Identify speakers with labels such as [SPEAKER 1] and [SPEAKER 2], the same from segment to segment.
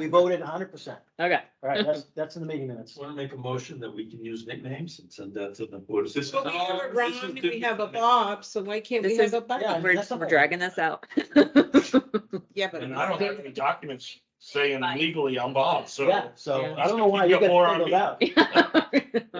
[SPEAKER 1] We voted hundred percent.
[SPEAKER 2] Okay,
[SPEAKER 1] All right, that's, that's in the meeting minutes.
[SPEAKER 3] Want to make a motion that we can use nicknames and send that to the board. of
[SPEAKER 4] Well, we have a
[SPEAKER 3] Supervisors?
[SPEAKER 4] Ron and we have a Bob, so why can't we
[SPEAKER 2] This
[SPEAKER 4] have
[SPEAKER 2] is-
[SPEAKER 4] a
[SPEAKER 1] Yeah,
[SPEAKER 4] Bob?
[SPEAKER 2] we're,
[SPEAKER 1] that's
[SPEAKER 2] we're
[SPEAKER 1] okay.
[SPEAKER 2] dragging this out.
[SPEAKER 4] Yeah, but.
[SPEAKER 5] And I don't have any documents saying legally I'm Bob,
[SPEAKER 1] Yeah,
[SPEAKER 5] so.
[SPEAKER 1] so
[SPEAKER 2] Yeah.
[SPEAKER 1] I don't know why you
[SPEAKER 5] Get more
[SPEAKER 1] got
[SPEAKER 5] on
[SPEAKER 1] singled
[SPEAKER 5] me.
[SPEAKER 1] out.
[SPEAKER 3] It's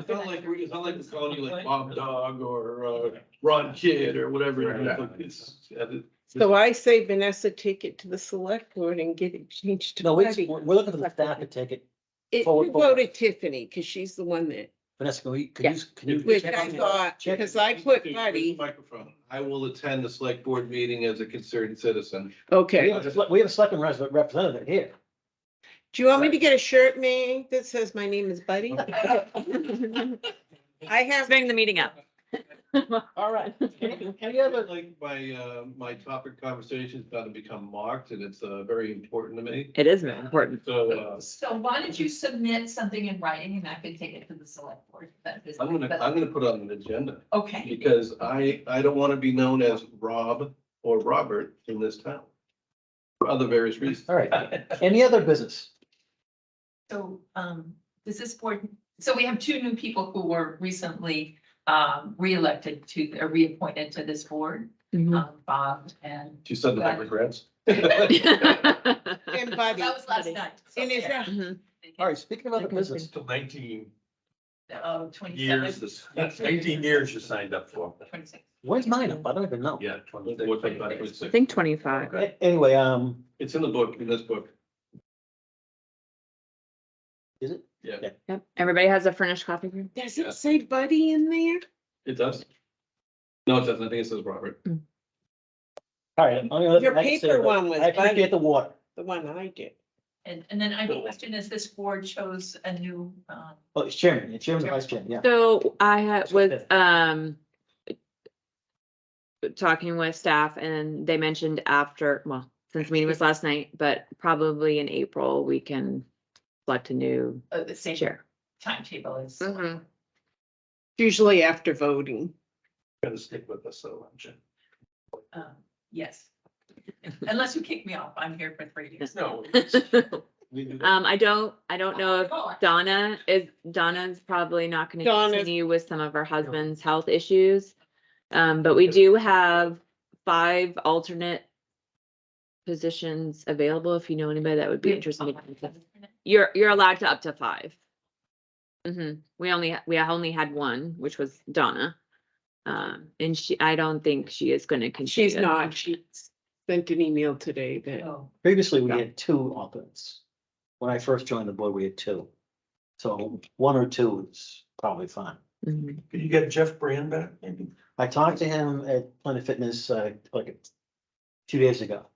[SPEAKER 3] not like, we- it's not like we're calling you like Bob Dog or uh, Ron Kid or whatever.
[SPEAKER 5] Right.
[SPEAKER 3] It's- it's-
[SPEAKER 4] So I say Vanessa, take it to the select board and get it changed to
[SPEAKER 1] No, we,
[SPEAKER 4] Patty.
[SPEAKER 1] we're looking for the staff to take it.
[SPEAKER 4] It,
[SPEAKER 1] forward,
[SPEAKER 4] you
[SPEAKER 1] forward.
[SPEAKER 4] voted Tiffany, cause she's the one that,
[SPEAKER 1] Vanessa, can we, can you, can you?
[SPEAKER 4] which
[SPEAKER 1] check
[SPEAKER 4] I
[SPEAKER 1] on that?
[SPEAKER 4] thought,
[SPEAKER 1] Check.
[SPEAKER 4] because I put
[SPEAKER 3] Please,
[SPEAKER 4] Buddy,
[SPEAKER 3] Microphone. I will attend the select board meeting as a concerned citizen.
[SPEAKER 1] We
[SPEAKER 4] okay.
[SPEAKER 1] have a sele- we have a selectman res- representative here.
[SPEAKER 4] Do you want me to get a shirt made that says my name is Buddy? I have.
[SPEAKER 2] Bring the meeting up.
[SPEAKER 1] All right. Any any other,
[SPEAKER 3] Like my, uh, my topic conversation is about to become marked and it's, uh, very important to me.
[SPEAKER 2] It is important.
[SPEAKER 3] So, uh,
[SPEAKER 6] So why don't you submit something in writing and I can take it to the select board? That is-
[SPEAKER 3] I'm gonna, I'm gonna put on an agenda
[SPEAKER 6] Okay,
[SPEAKER 3] because I, I don't want to be known as Rob or Robert in this town. For other various reasons.
[SPEAKER 1] all right, any other business?
[SPEAKER 6] so, um, does this board, so we have two new people who were recently, um, reelected to, or reappointed to this board,
[SPEAKER 2] Mm-hmm.
[SPEAKER 6] um, Bob and.
[SPEAKER 3] She said that I regrets.
[SPEAKER 4] And
[SPEAKER 6] That
[SPEAKER 4] Buddy.
[SPEAKER 6] was last night. so
[SPEAKER 4] And is
[SPEAKER 6] yeah.
[SPEAKER 4] that-
[SPEAKER 2] Mhm.
[SPEAKER 1] All right, speaking of other business,
[SPEAKER 3] Till nineteen
[SPEAKER 6] Oh, twenty-seven.
[SPEAKER 3] years, this- that's eighteen years you signed up for.
[SPEAKER 6] Twenty-six.
[SPEAKER 1] where's mine up? I don't even know.
[SPEAKER 3] Yeah.
[SPEAKER 2] I think twenty-five.
[SPEAKER 1] A- Anyway, um,
[SPEAKER 3] It's in the book, in this book.
[SPEAKER 1] is it?
[SPEAKER 3] Yeah,
[SPEAKER 2] Yep. Everybody has a furnished coffee room.
[SPEAKER 4] Does it say Buddy in there?
[SPEAKER 3] it does. No, it doesn't. I think it says Robert.
[SPEAKER 1] All right. only other
[SPEAKER 4] Your
[SPEAKER 1] thing I can say
[SPEAKER 4] paper
[SPEAKER 1] about-
[SPEAKER 4] one was
[SPEAKER 1] I appreciate
[SPEAKER 4] Buddy.
[SPEAKER 1] the water.
[SPEAKER 4] The one I did.
[SPEAKER 6] And, and then I question is this board chose a new, um,
[SPEAKER 1] Oh, it's chairman, it's chairman, vice chairman, yeah.
[SPEAKER 2] So I had
[SPEAKER 1] It's
[SPEAKER 2] was
[SPEAKER 1] okay.
[SPEAKER 2] um talking with staff and they mentioned after, well, since the meeting was last night, but probably in April, we can select a new
[SPEAKER 6] uh, the same
[SPEAKER 2] chair.
[SPEAKER 6] timetable as.
[SPEAKER 2] Mhm.
[SPEAKER 4] Usually after voting.
[SPEAKER 3] Gotta stick with us though, I'm sure.
[SPEAKER 6] Um, yes. Unless you kick me off, I'm here for three years.
[SPEAKER 3] No. we do that.
[SPEAKER 2] Um, I don't, I don't know if
[SPEAKER 6] Oh,
[SPEAKER 2] Donna is, Donna's probably not gonna
[SPEAKER 4] Donna's-
[SPEAKER 2] continue with some of her husband's health issues. Um, but we do have five alternate positions available, if you know anybody that would be interested.
[SPEAKER 6] Oh,
[SPEAKER 2] in- You're, you're allowed to up to five. hmm we only, we only had one, which was Donna. Um, and she, I don't think she is gonna continue.
[SPEAKER 4] She's not. She sent an email today that
[SPEAKER 6] Oh,
[SPEAKER 1] Previously, we had two alternates. When I first joined the board, we had two. So one or two is probably fine.
[SPEAKER 2] Mhm.
[SPEAKER 3] Could you get Jeff Brand back maybe?
[SPEAKER 1] I talked to him at Planet Fitness, uh, like two days ago.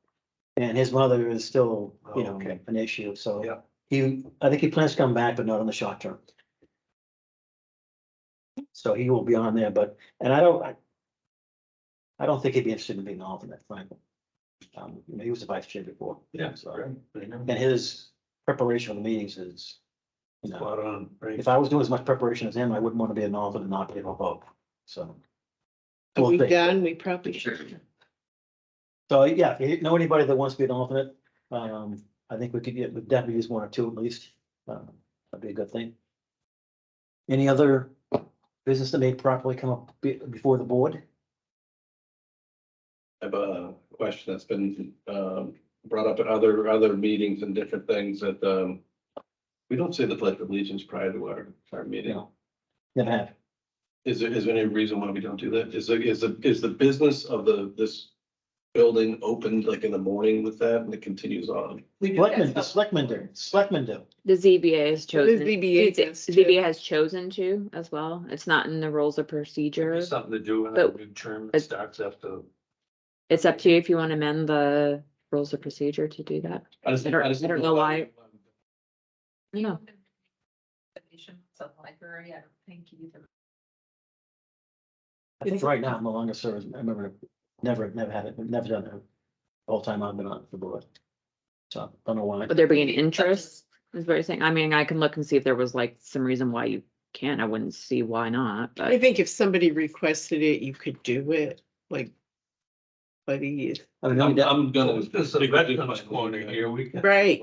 [SPEAKER 1] And his mother is still, you
[SPEAKER 3] Oh,
[SPEAKER 1] know,
[SPEAKER 3] okay.
[SPEAKER 1] an issue, so.
[SPEAKER 3] Yeah.
[SPEAKER 1] He, I think he plans to come back, but not in the short term. So he will be on there, but, and I don't, I. I don't think he'd be interested in being an alternate, frankly. Um, you know, he was the vice chair before.
[SPEAKER 3] Yeah,
[SPEAKER 1] So,
[SPEAKER 3] sorry.
[SPEAKER 1] and his preparation of the meetings is. You know,
[SPEAKER 3] Spot on, right?
[SPEAKER 1] if I was doing as much preparation as him, I wouldn't want to be an alternate and not be able to vote, so.
[SPEAKER 4] are
[SPEAKER 1] we'll
[SPEAKER 4] we
[SPEAKER 1] see.
[SPEAKER 4] done? We probably should.
[SPEAKER 1] So, yeah, if you know anybody that wants to be an alternate, um, I think we could get, we'd definitely use one or two at least. Um, That'd be a good thing. Any other business that may properly come up be- before the board?
[SPEAKER 7] I have a question that's been um brought up at other other meetings and different things that um. We don't say the pledge of allegiance prior to our our meeting.
[SPEAKER 1] No. Never have.
[SPEAKER 7] Is there is there any reason why we don't do that? Is there is the is the business of the this. Building opened like in the morning with that and it continues on.
[SPEAKER 6] we do
[SPEAKER 1] Selectmen,
[SPEAKER 6] that.
[SPEAKER 1] the selectmen do, selectmen do.
[SPEAKER 2] The ZBA has chosen.
[SPEAKER 4] ZBA
[SPEAKER 2] it's-
[SPEAKER 4] does too.
[SPEAKER 2] ZBA has chosen to as well. It's not in the rules of procedure.
[SPEAKER 3] Something to do with
[SPEAKER 2] But-
[SPEAKER 3] a new term that starts after.
[SPEAKER 2] It's up to you if you want to amend the rules of procedure to do that.
[SPEAKER 7] I just-
[SPEAKER 2] I don't-
[SPEAKER 7] just
[SPEAKER 2] I don't know why. You know,
[SPEAKER 6] It's a library, I don't think either.
[SPEAKER 1] I think right now, I'm the longest service, I remember, never, never had it, never done it. Whole time I've been on the board. So, don't know why.
[SPEAKER 2] would there be an interest? Is what you're saying? I mean, I can look and see if there was like some reason why you can't. I wouldn't see why not,
[SPEAKER 4] I
[SPEAKER 2] but
[SPEAKER 4] think if somebody requested it, you could do it, like. Buddy, is-
[SPEAKER 1] I mean,
[SPEAKER 7] I'm
[SPEAKER 1] no doubt-
[SPEAKER 7] I'm gonna.
[SPEAKER 3] This is a veterans corner here, we can.
[SPEAKER 4] Right.